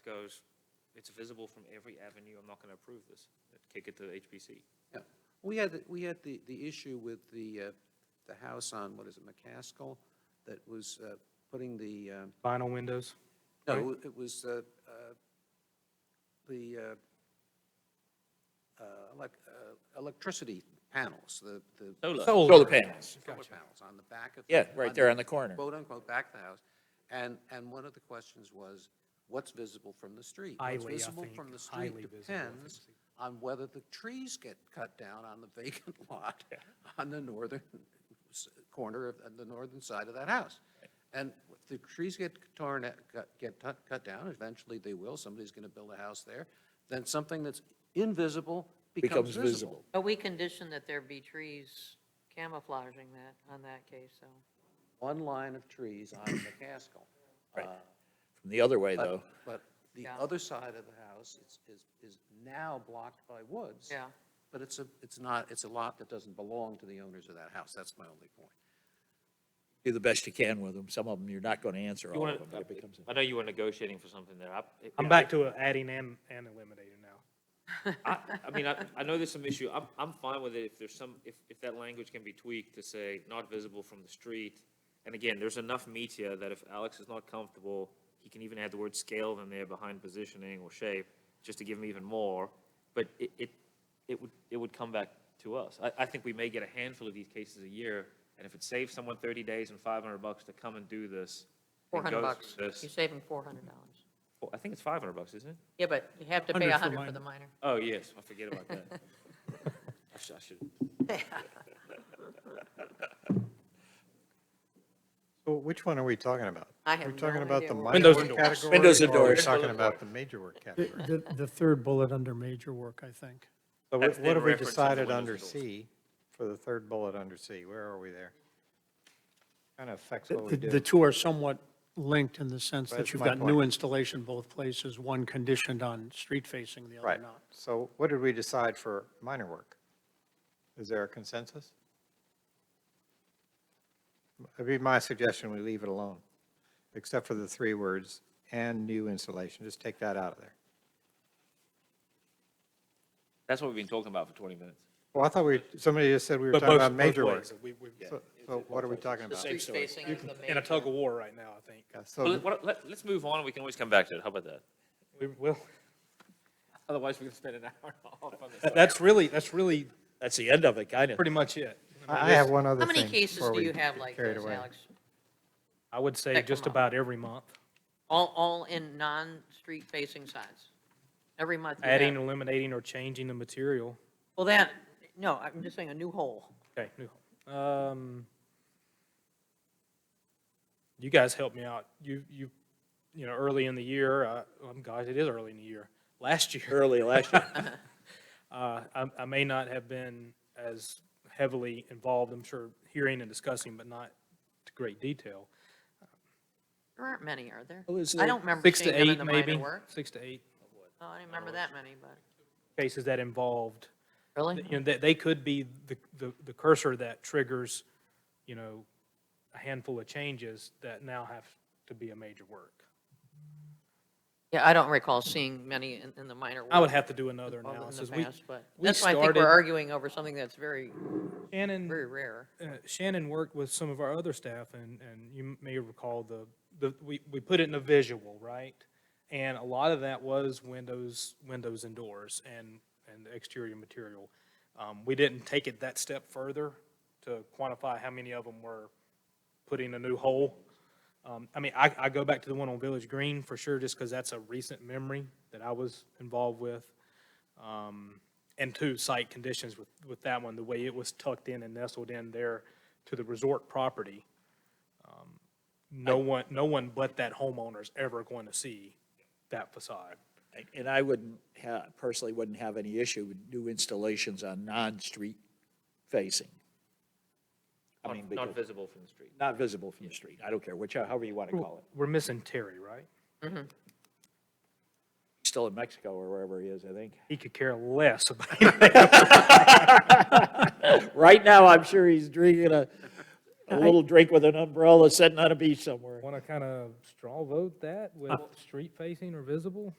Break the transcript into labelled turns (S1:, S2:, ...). S1: goes, it's visible from every avenue, I'm not going to approve this. Kick it to HPC.
S2: Yeah, we had, the- we had the, the issue with the, uh, the house on, what is it, McCaskill, that was uh, putting the, uh,
S3: Vinyl windows?
S2: no, it was uh, uh, the uh, uh, elec- uh, electricity panels, the, the.
S1: Solar.
S4: Solar
S3: Solar.
S4: panels.
S2: Solar panels on the back of.
S4: Yeah, right there on the corner.
S2: Quote unquote, back of the house. And, and one of the questions was, what's visible from the street?
S3: Highly, I
S2: What's visible
S3: think,
S2: from the
S3: highly
S2: street
S3: visible from the
S2: depends
S3: street.
S2: on whether the trees get cut down on the vacant lot on the northern s- corner of, on the northern side of that house. And if the trees get torn, at- cut- get tu- cut down, eventually they will, somebody's going to build a house there, then something that's invisible becomes
S4: Becomes
S2: visible.
S4: visible.
S5: But we condition that there be trees camouflaging that on that case, so.
S2: One line of trees on McCaskill.
S4: Right.
S2: Uh,
S4: From the other way,
S2: But-
S4: though,
S2: But the
S5: Yeah.
S2: other side of the house is, is, is now blocked by woods.
S5: Yeah.
S2: But it's a, it's not, it's a lot that doesn't belong to the owners of that house. That's my only point.
S4: do the best you can with them. Some of them, you're not going to answer
S1: You
S4: all
S1: wanna-
S4: of them, but it becomes,
S1: I know you were negotiating for something there. I-
S3: I'm back to adding and, and eliminating now.
S1: I, I mean, I, I know there's some issue, I'm, I'm fine with it if there's some, if, if that language can be tweaked to say not visible from the street. And again, there's enough meat here that if Alex is not comfortable, he can even add the word scale in there behind positioning or shape, just to give him even more. But it, it, it would, it would come back to us. I, I think we may get a handful of these cases a year, and if it saves someone thirty days and five hundred bucks to come and do this.
S5: Four
S1: and
S5: hundred
S1: goes
S5: bucks.
S1: through this-
S5: You save them four hundred dollars.
S1: well, I think it's five hundred bucks, isn't it?
S5: Yeah, but you have to pay a hundred for the minor.
S1: Oh, yes, I forget about that. I should, I should.
S6: So which one are we talking about?
S5: I have
S6: We're talking
S5: no
S6: about
S5: idea
S6: the
S5: what-
S6: minor
S5: Windows
S6: work
S5: and doors.
S6: category?
S4: Windows and
S6: or are we
S4: doors.
S6: talking about the major work category?
S7: The, the third bullet under major work, I think.
S6: So
S1: That's
S6: what
S1: in
S6: what have we
S1: reference to the
S6: decided
S1: windows
S6: under
S1: and doors.
S6: C for the third bullet under C? Where are we there? Kind of affects what we
S7: The, the
S6: do.
S7: two are somewhat linked in the sense that
S6: That's
S7: you've
S6: my
S7: got new
S6: point.
S7: installation both places, one conditioned on street facing, the other
S6: Right.
S7: not.
S6: So what did we decide for minor work? Is there a consensus? It'd be my suggestion, we leave it alone, except for the three words, "and new installation." Just take that out of there.
S1: That's what we've been talking about for 20 minutes.
S6: Well, I thought we, somebody just said we were talking about major work. So so what are we talking about?
S5: Street facing is the major.
S3: In a tug of war right now, I think.
S6: Yeah,
S1: Well,
S6: So
S1: let- what- let, us move on, and we can always come back to it, how about that?
S3: We will,
S1: Otherwise, we're going to spend an hour and a half on this.
S3: that's really, that's really
S4: that's the end of it, kind of.
S3: pretty much it.
S6: I I have one other
S5: How
S6: thing.
S5: many cases
S6: before
S5: do
S6: we
S5: you have
S6: get
S5: like
S6: carried
S5: this,
S6: away.
S5: Alex?
S3: I would say
S5: Check
S3: just
S5: them out.
S3: about every month,
S5: All, all in non-street facing sides? Every month you have-
S3: adding, eliminating, or changing the material.
S5: Well, that, no, I'm just saying a new hole.
S3: Okay, new home. Um, you guys helped me out. You, you, you know, early in the year, uh, um, gosh, it is early in the year. Last year,
S4: Early last year.
S3: Uh, I, I may not have been as heavily involved, I'm sure, hearing and discussing, but not to great detail.
S5: There aren't many, are there?
S4: Well, is
S5: I
S4: there-
S5: don't remember
S3: Six to
S5: seeing them in
S3: eight,
S5: the minor
S3: maybe,
S5: work.
S3: six to eight
S5: Oh, I didn't remember that many, but.
S3: cases that involved,
S5: Really?
S3: you know, that they could be the, the the cursor that triggers, you know, a handful of changes that now have to be a major work.
S5: Yeah, I don't recall seeing many in, in the minor work.
S3: I would have to do another
S5: of
S3: analysis.
S5: In
S3: We-
S5: the past, but
S3: we
S5: that's why I think
S3: started-
S5: we're arguing over something that's very,
S3: Shannon.
S5: very rare.
S3: uh, Shannon worked with some of our other staff, and, and you may recall the, the, we, we put it in a visual, right? And a lot of that was windows, windows and doors and, and exterior material. Um, we didn't take it that step further to quantify how many of them were putting a new hole. Um, I mean, I, I go back to the one on Village Green for sure, just because that's a recent memory that I was involved with. Um, and two, site conditions with, with that one, the way it was tucked in and nestled in there to the resort property. Um, No one, no one but that homeowner is ever going to see that facade.
S4: And I wouldn't, ha- personally wouldn't have any issue with new installations on non-street facing. I mean,
S1: Not- Not
S4: because,
S1: visible from the street.
S4: not visible from the street. I don't care, which, however you want to call it.
S3: We're missing Terry, right?
S4: Still in Mexico or wherever he is, I think.
S3: He could care less about,
S4: Right now, I'm sure he's drinking a, a little drink with an umbrella sitting on a beach somewhere.
S3: Uh, Want to kind of straw vote that with street facing or visible?